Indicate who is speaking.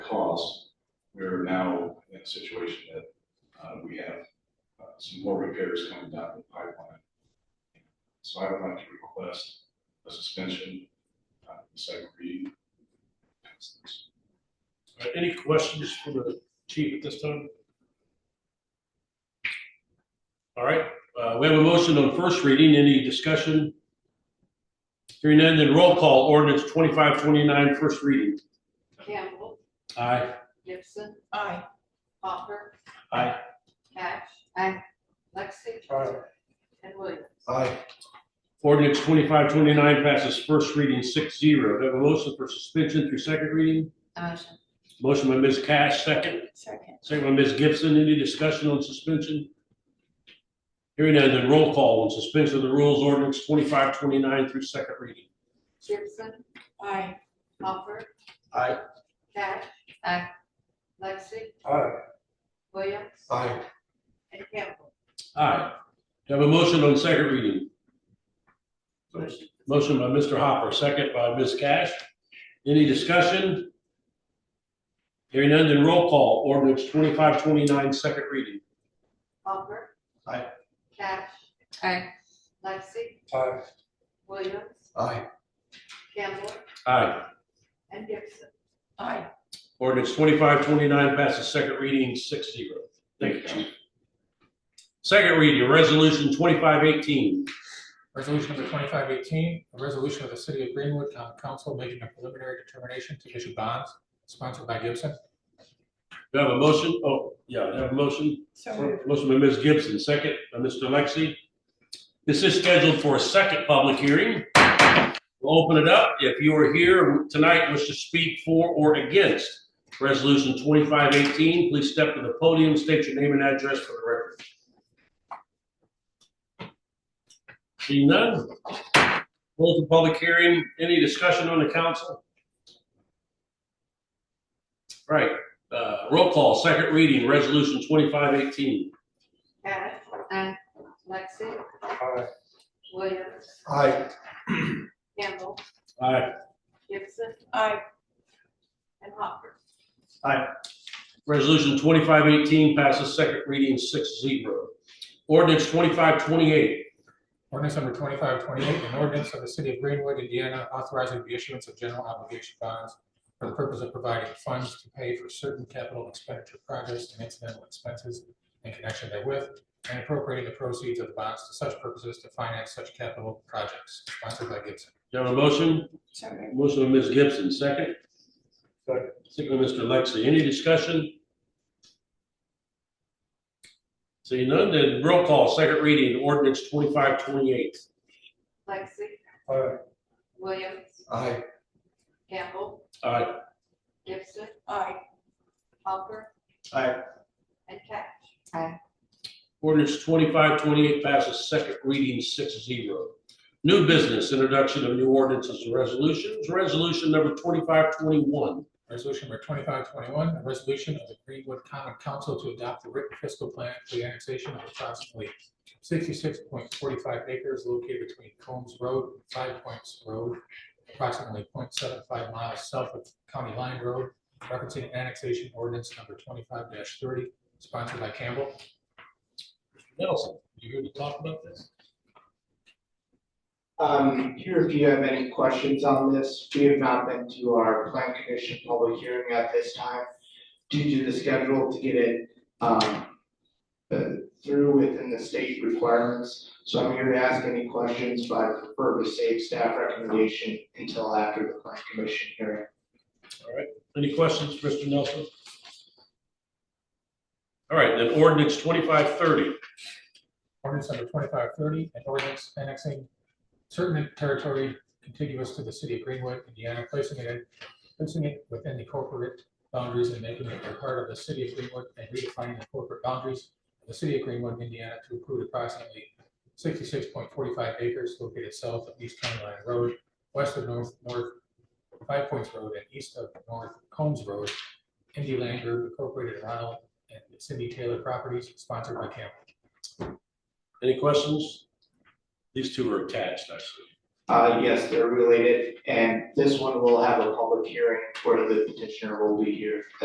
Speaker 1: cost, we're now in a situation that uh, we have uh, some more repairs coming down the pipeline. So I would like to request a suspension, uh, second reading. Pass this.
Speaker 2: All right, Any questions for the chief at this time? All right, uh, we have a motion on first reading. Any discussion? Hearing none, then roll call ordinance 2529, first reading.
Speaker 3: Campbell,
Speaker 2: Aye.
Speaker 3: Gibson,
Speaker 4: Aye.
Speaker 3: Hopper.
Speaker 2: Aye.
Speaker 3: Cash. Aye. Lexi.
Speaker 2: Aye.
Speaker 3: And Williams.
Speaker 5: Aye.
Speaker 2: Ordinance 2529 passes first reading 6-0. Do I have a motion for suspension through second reading?
Speaker 3: Motion.
Speaker 2: Motion by Ms. Cash, second.
Speaker 4: Second.
Speaker 2: Second by Ms. Gibson. Any discussion on suspension? Hearing none, then roll call on suspension of the rules ordinance 2529 through second reading.
Speaker 3: Gibson,
Speaker 4: Aye.
Speaker 3: Hopper.
Speaker 5: Aye.
Speaker 3: Cash. Aye. Lexi,
Speaker 5: Aye.
Speaker 3: Williams.
Speaker 5: Aye.
Speaker 3: And Campbell.
Speaker 2: Aye. Do I have a motion on second reading?
Speaker 5: Motion.
Speaker 2: Motion by Mr. Hopper, second by Ms. Cash. Any discussion? Hearing none, then roll call. Ordinance 2529, second reading.
Speaker 3: Hopper.
Speaker 5: Aye.
Speaker 3: Cash. Aye. Lexi,
Speaker 5: Aye.
Speaker 3: Williams,
Speaker 5: Aye.
Speaker 3: Campbell,
Speaker 2: Aye.
Speaker 3: and Gibson.
Speaker 4: Aye.
Speaker 2: Ordinance 2529 passes second reading, 6-0. Thank you, Chief. Second reading, Resolution 2518.
Speaker 6: Resolution number twenty-five eighteen, a resolution of the city of Greenwood Town Council making a preliminary determination to issue bonds sponsored by Gibson.
Speaker 2: Do I have a motion? Oh, yeah, do I have a motion?
Speaker 4: So moved.
Speaker 2: Motion by Ms. Gibson, second by Mr. Lexi. This is scheduled for a second public hearing. We'll open it up. If you are here tonight and wish to speak for or against Resolution 2518, please step to the podium, state your name and address for the record. Seeing none, close the public hearing. Any discussion on the council? All right, uh, roll call, second reading, resolution twenty-five eighteen.
Speaker 3: Cash. Aye. Lexi.
Speaker 5: Aye.
Speaker 3: Williams,
Speaker 5: Aye.
Speaker 3: Campbell,
Speaker 2: Aye.
Speaker 3: Gibson,
Speaker 4: Aye.
Speaker 3: and Hopper.
Speaker 2: Resolution twenty-five eighteen passes second reading six zero. Ordinance twenty-five twenty-eight.
Speaker 6: Ordinance number twenty-five twenty-eight, an ordinance of the city of Greenwood, Indiana, authorizing the issuance of general obligation bonds for the purpose of providing funds to pay for certain capital expenditure projects and incidental expenses in connection therewith, and appropriating the proceeds of the bonds to such purposes to finance such capital projects sponsored by Gibson.
Speaker 2: Do I have a motion?
Speaker 4: So moved.
Speaker 2: Motion by Ms. Gibson, second.
Speaker 5: Second.
Speaker 2: Second by Mr. Lexi. Any discussion? Seeing none, then roll call, second reading, ordinance twenty-five twenty-eight.
Speaker 3: Lexi,
Speaker 5: Aye.
Speaker 3: Williams,
Speaker 5: Aye.
Speaker 3: Campbell,
Speaker 2: Aye.
Speaker 3: Gibson,
Speaker 4: Aye.
Speaker 3: Hopper,
Speaker 5: Aye.
Speaker 3: and Cash.
Speaker 2: Ordinance twenty-five twenty-eight passes second reading six zero. New business, introduction of new ordinances and resolutions, resolution number twenty-five twenty-one.
Speaker 6: Resolution number twenty-five twenty-one, a resolution of the Greenwood Common Council to adopt the written fiscal plan for the annexation of approximately sixty-six point forty-five acres located between Combs Road and Five Points Road, approximately 0.75 miles south of County Line Road, referencing annexation ordinance number twenty-five thirty, sponsored by Campbell.
Speaker 2: Nelson, you here to talk about this?
Speaker 7: Um, here, if you have any questions on this, we have not been to our plan commission public hearing at this time due to the schedule to get it, um, uh, through within the state requirements. So I'm here to ask any questions, but I prefer to save staff recommendation until after the plan commission hearing.
Speaker 2: Any questions, Mr. Nelson? All right, then ordinance twenty-five thirty.
Speaker 6: Ordinance number twenty-five thirty, an ordinance annexing certain territory contiguous to the city of Greenwood, Indiana, placing it, in- placing it within the corporate boundaries and making it a part of the city of Greenwood and redefining the corporate boundaries of the city of Greenwood, Indiana, to include approximately sixty-six point forty-five acres located south of East County Line Road, west of North, North Five Points Road, and east of North Combs Road, Indy Land Group Incorporated, Ronald and Cindy Taylor Properties, sponsored by Campbell.
Speaker 2: Any questions? These two are attached, actually.
Speaker 7: Uh, yes, they're related, and this one will have a public hearing where the petitioner will be here